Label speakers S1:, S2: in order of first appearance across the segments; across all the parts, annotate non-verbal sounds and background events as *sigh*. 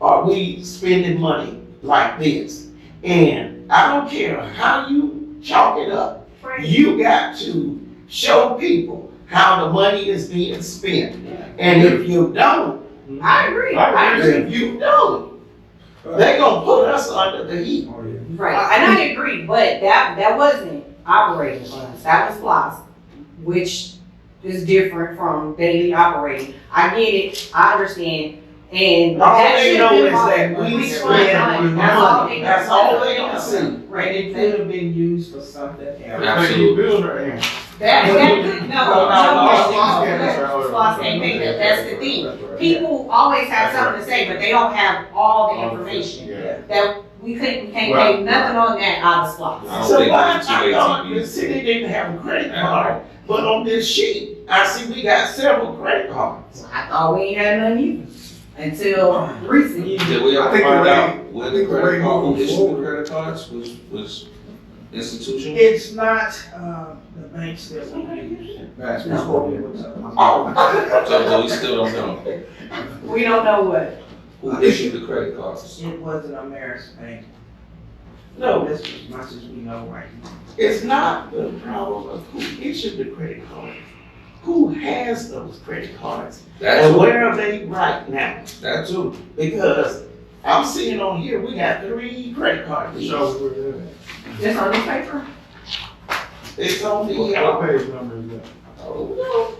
S1: are we spending money like this? And I don't care how you chalk it up,
S2: Right.
S1: you got to show people how the money is being spent. And if you don't, I agree, I agree, if you don't, they gonna put us under the heat.
S3: Oh, yeah.
S4: Right, and I agree, but that, that wasn't operating funds, that was loss, which is different from daily operating. I get it, I understand, and
S1: All
S4: that
S1: they
S4: should
S1: know
S4: have
S1: is
S4: been all.
S1: that we
S4: Which
S1: spend
S4: one? That's all
S1: money,
S4: they-
S1: that's all they gonna see.
S5: Right, it could have been used for something else.
S3: Absolutely. build her in.
S2: That, that, no, no,
S1: No, no, no,
S2: no, no, Floss can't make that, that's the thing. People always have something to say, but they don't have all the information.
S3: Yeah.
S2: That we couldn't, can't make nothing on that out of SLOSS.
S6: I don't
S1: So
S6: think
S1: why,
S6: it's too
S1: I
S6: late to
S1: thought
S6: be-
S1: the city didn't have a credit card, but on this sheet, I see we got several credit cards.
S4: I thought we ain't had none either, until recently.
S6: Yeah, we
S3: I
S6: all
S3: think the
S6: found
S3: way-
S6: out
S3: I
S6: when the
S3: think the way
S6: credit card,
S3: moving
S6: who issued the
S3: forward-
S6: credit cards was, was institutional.
S5: It's not, uh, the banks that we use.
S3: That's
S5: That's what we were talking about.
S1: Oh.
S6: So, so we still don't know
S4: We don't know what.
S6: who issued the credit cards.
S5: It wasn't Ameris Bank,
S1: *laughs* No,
S5: that's as much as we know right now.
S1: it's not the problem of who issued the credit card. Who has those credit cards?
S6: That
S1: And
S6: too,
S1: where are they right now?
S6: that too.
S1: Because I'm seeing on here, we got three credit card deals.
S3: So, we're doing
S4: Just on the paper?
S1: It's on
S3: it.
S1: the,
S3: What
S1: uh,
S3: page number is that?
S6: Oh,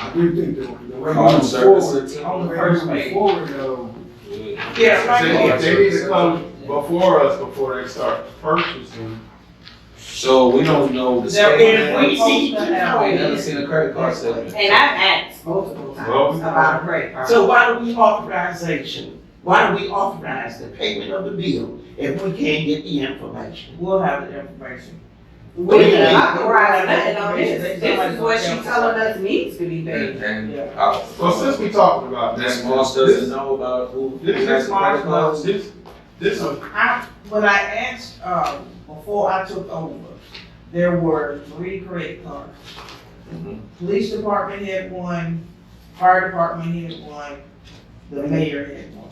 S3: I do think the, the way
S6: Card
S3: moving
S6: service.
S3: forward, on the first way forward though,
S6: no.
S1: yeah, right
S3: They,
S1: here.
S3: they need to come before us, before they start purchasing.
S6: So we don't know the
S1: Now, if we
S6: statement.
S1: need to
S6: We ain't
S1: know,
S6: never seen a credit card statement.
S4: And I've asked multiple
S3: Well,
S4: times about
S5: uh,
S4: a credit card.
S1: so why do we authorization? Why do we authorize the payment of the bill if we can't get the information?
S5: We'll have the information.
S4: We didn't authorize nothing on this, this is what she telling us needs to be paid.
S6: And, and,
S5: Yeah.
S6: uh,
S3: Well, since we talking about
S6: Ms.
S3: this,
S6: Moss doesn't
S3: this,
S6: know about who.
S3: this,
S6: has
S3: this,
S6: the credit cards.
S3: this, this, is-
S5: I, when I asked, um, before I took over, there were three credit cards.
S6: Mhm.
S5: Police department had one, fire department had one, the mayor had one.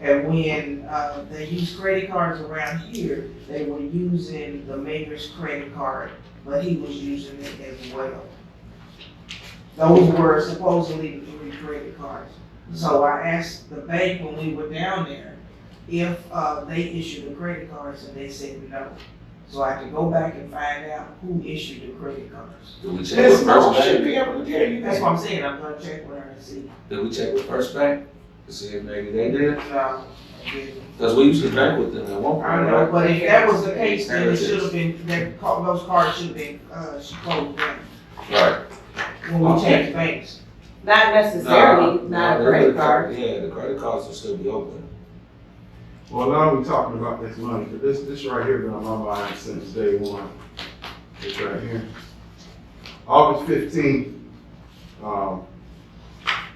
S5: And when, uh, they used credit cards around here, they were using the mayor's credit card, but he was using it as well. Those were supposedly the three credit cards. So I asked the bank when we were down there, if uh, they issued the credit cards and they said no. So I could go back and find out who issued the credit cards.
S6: Did we check
S1: This
S6: with
S1: law
S6: First
S1: should
S6: Bank?
S1: be able to tell you
S5: That's
S1: that.
S5: what I'm saying, I'm gonna check with her and see.
S6: Did we check with First Bank? To see if maybe they did,
S5: No, I didn't.
S6: cause we used to bank with them at one point,
S5: Uh, I don't know,
S6: right?
S5: but if that was the case, then it should have been, that, ca- those cards should have been, uh, should closed down
S6: Right.
S5: when we changed banks.
S4: Not necessarily, not a
S6: the
S4: credit card.
S6: Yeah, the credit cards will still be open.
S3: well, now we talking about this money, but this, this right here been on my mind since day one. It's right here. August fifteenth, um,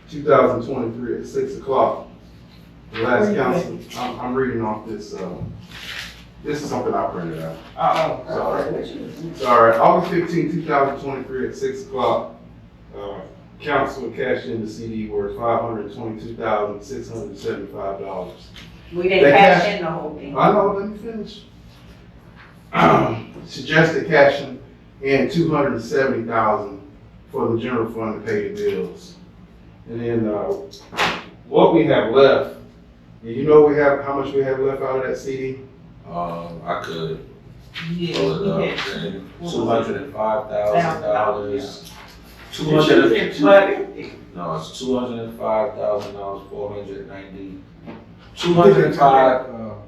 S3: two thousand twenty-three at six o'clock. The last council, I'm, I'm reading off this, uh, this is something I printed out.
S5: Oh,
S3: Sorry. Sorry, August 15, 2023, at 6 o'clock, uh, council cashed in the CD worth $522,675.
S4: We didn't
S3: They
S4: cash
S3: cash-
S4: in the whole thing.
S3: I know, let me finish. Um, Suggested cashing in 270,000 for the general fund to pay the bills. And then, uh, what we have left, and you know we have, how much we have left out of that CD?
S6: Um, I could
S5: Yeah,
S6: pull
S5: he
S6: it
S5: had
S6: up and two hundred and five thousand
S5: Thousand
S6: dollars.
S5: dollars,
S6: Two
S1: It should have
S6: hundred
S1: been
S6: and,
S1: flooded.
S6: no, it's two hundred and five thousand dollars, four hundred and ninety. Two hundred and five. uh,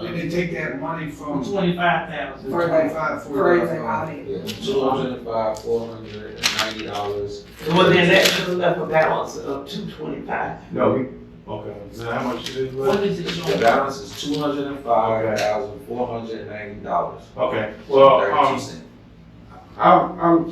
S7: Did they take that money from
S5: Twenty-five thousand.
S4: For the,
S7: twenty-five,
S4: for the
S7: forty-five?
S4: audit.
S6: Yeah, two hundred and five, four hundred and ninety dollars.
S1: Well, then that should have left a balance of two twenty-five.
S3: No, we, okay, is that how much it is left?
S5: What is it
S6: The
S5: showing?
S6: balance is two hundred and five thousand, four hundred and ninety dollars.
S3: Okay, well, um, I'm, I'm,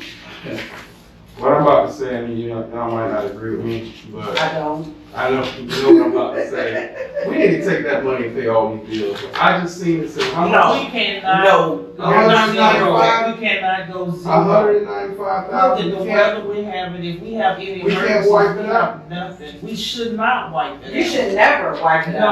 S3: what I'm about to say, I mean, you know, y'all might not agree with me, but
S4: I don't,
S3: I know, you know what I'm about to say. We need to take that money and pay all these bills. I just seen it, say, how much?
S5: We cannot,
S1: No.
S5: we cannot
S3: No.
S5: go, we cannot go
S3: A
S5: zero.
S3: hundred and ninety-five
S5: Look at
S3: thousand.
S5: the weather we have, and if we have any
S3: We can't
S5: emergencies,
S3: wipe it
S5: we
S3: out.
S5: have nothing, we should not wipe it out.
S4: you should never wipe it out.